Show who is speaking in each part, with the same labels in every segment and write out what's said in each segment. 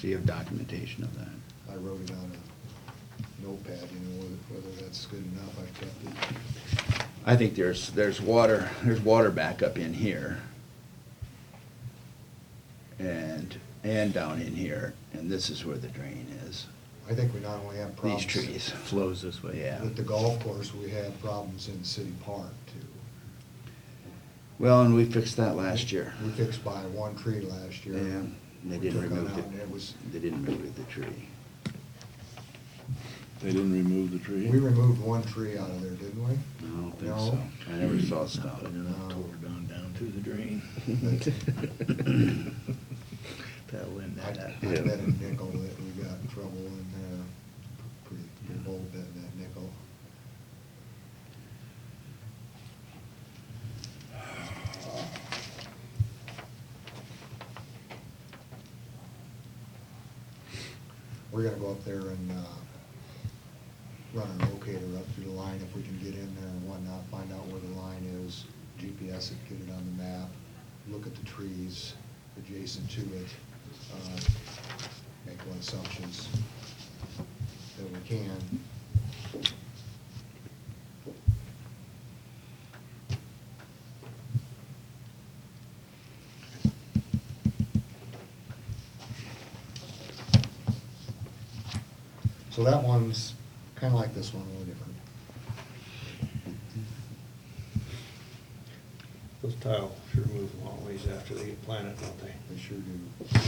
Speaker 1: do you have documentation of that?
Speaker 2: I wrote it on a notepad, you know, whether- whether that's good enough, I've kept it.
Speaker 1: I think there's, there's water, there's water backup in here. And, and down in here, and this is where the drain is,
Speaker 2: I think we not only have
Speaker 1: these
Speaker 2: problems.
Speaker 1: trees.
Speaker 3: flows this way.
Speaker 1: Yeah.
Speaker 2: With the golf course, we had problems in City Park too.
Speaker 1: Well, and we fixed that last year.
Speaker 2: We fixed by one tree last year.
Speaker 1: Yeah, and they
Speaker 2: We
Speaker 1: didn't
Speaker 2: took 'em
Speaker 1: remove
Speaker 2: out and It was,
Speaker 1: the, they didn't remove the tree.
Speaker 4: They didn't remove the tree?
Speaker 2: we removed one tree out of there, didn't we?
Speaker 1: I don't think
Speaker 2: No.
Speaker 1: so. I never saw it
Speaker 3: Stop it,
Speaker 1: stopped.
Speaker 3: and then
Speaker 2: No.
Speaker 3: tore it down, down to the drain. That'll end
Speaker 2: I I
Speaker 3: that up.
Speaker 1: Yeah.
Speaker 2: bet a nickel that we got in trouble in there, pretty, pretty bold bet in that nickel. We're gonna go up there and, uh, run our locator up through the line if we can get in there and whatnot, find out where the line is, GPS it, get it on the map, look at the trees adjacent to it, uh, make what assumptions that we can. So that one's kinda like this one, a little different.
Speaker 5: Those tile sure move a long ways after they get planted, don't they?
Speaker 2: They sure do.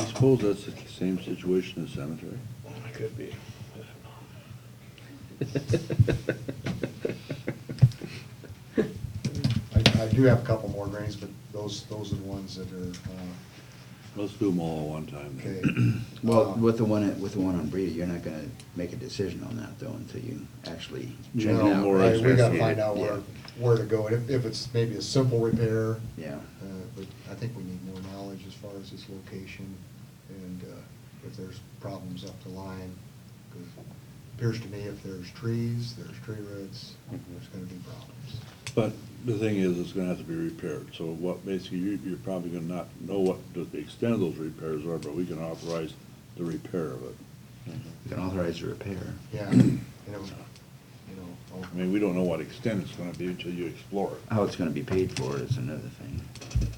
Speaker 4: I suppose that's the same situation as cemetery.
Speaker 5: It could be.
Speaker 2: I, I do have a couple more drains, but those, those are the ones that are, uh,
Speaker 4: Let's do them all at one time
Speaker 2: okay.
Speaker 4: then.
Speaker 1: Well,
Speaker 2: Uh,
Speaker 1: with the one, at- with the one on Breda, you're not gonna make a decision on that though until you actually check it
Speaker 2: No,
Speaker 1: out.
Speaker 4: more
Speaker 2: I-
Speaker 1: right?
Speaker 2: We gotta
Speaker 4: investigate
Speaker 2: find
Speaker 4: it,
Speaker 2: out where, where to go, if, if it's maybe a simple repair,
Speaker 1: Yeah,
Speaker 2: uh, but I think we need more knowledge as far as its location, and, uh, if there's problems up the line, 'cause it appears to me if there's trees, there's tree roots,
Speaker 4: Mm-hmm.
Speaker 2: there's gonna be problems.
Speaker 4: But the thing is, it's gonna have to be repaired, so what, basically, you, you're probably gonna not know what the extent of those repairs are, but we can authorize the repair of it.
Speaker 2: Mm-hmm.
Speaker 1: you can authorize the repair.
Speaker 2: Yeah, you know, you know. I'll-
Speaker 4: I mean, we don't know what extent it's gonna be until you explore it.
Speaker 2: Uh,
Speaker 1: How it's gonna be paid for is another thing.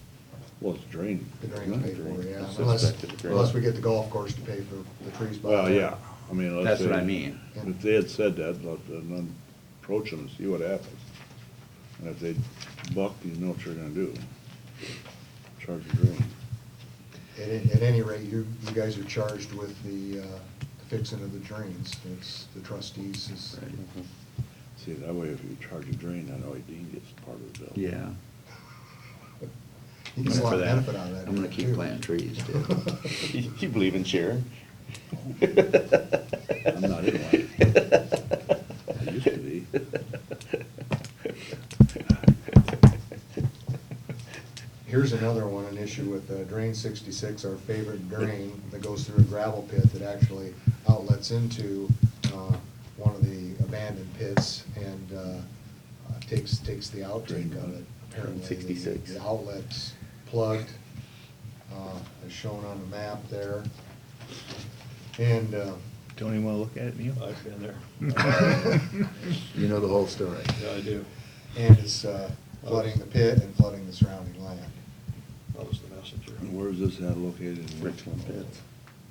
Speaker 4: Well, it's drained.
Speaker 2: The drain's paid for, yeah,
Speaker 4: It's
Speaker 2: unless,
Speaker 4: suspected drain.
Speaker 2: unless we get the golf course to pay for the trees. by
Speaker 4: Well,
Speaker 2: then.
Speaker 4: yeah, I mean, let's
Speaker 1: That's
Speaker 4: say.
Speaker 1: what I mean.
Speaker 4: If they had said that, let them approach them and see what happens. And if they buck, you know what you're gonna do. Charge the drain.
Speaker 2: At, a- at any rate, you, you guys are charged with the uh, fixing of the drains, it's the trustees is,
Speaker 1: Right.
Speaker 4: See, that way if you charge a drain, that way Dean gets part of the bill.
Speaker 1: Yeah.
Speaker 2: he gets a
Speaker 1: Remember
Speaker 2: lot of
Speaker 1: that.
Speaker 2: benefit out of that.
Speaker 1: I'm gonna keep
Speaker 2: too.
Speaker 1: planting trees, dude.
Speaker 6: You believe in Sharon?
Speaker 4: I'm not in one. I used to be.
Speaker 2: Here's another one, an issue with uh, Drain 66, our favorite drain that goes through a gravel pit that actually outlets into uh, one of the abandoned pits and uh, uh, takes, takes the outtake of it. Apparently, the-
Speaker 6: 66.
Speaker 2: The outlet's plugged, uh, as shown on the map there. And uh,
Speaker 3: Don't even wanna look at it, Neil?
Speaker 5: I've been there.
Speaker 1: You know the whole story.
Speaker 5: Yeah, I do.
Speaker 2: and it's uh, flooding the pit and flooding the surrounding land.
Speaker 5: I was the messenger.
Speaker 4: And where's this at located? in
Speaker 6: Richland Pits.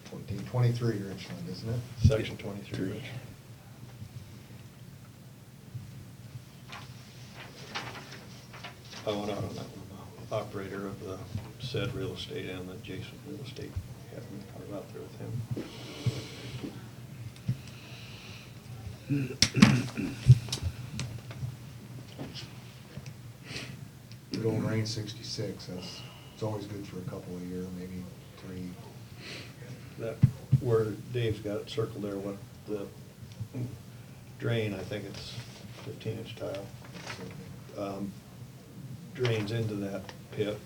Speaker 2: 1423 Richland, isn't it?
Speaker 5: Section twenty-three, Rich. I went out on that one, the operator of the said real estate and the adjacent real estate, happened, I was out there with him.
Speaker 2: Good old rain sixty-six, that's, it's always good for a couple a year, maybe three.
Speaker 5: That, where Dave's got it circled there, what the drain, I think it's fifteen inch tile,
Speaker 2: so-
Speaker 5: um, drains into that pit.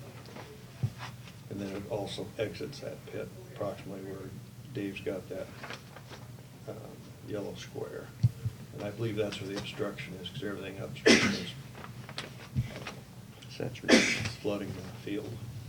Speaker 5: And then it also exits that pit approximately where Dave's got that, um, yellow square. And I believe that's where the obstruction is, because everything upstream is
Speaker 6: Saturated.
Speaker 5: flooding the field.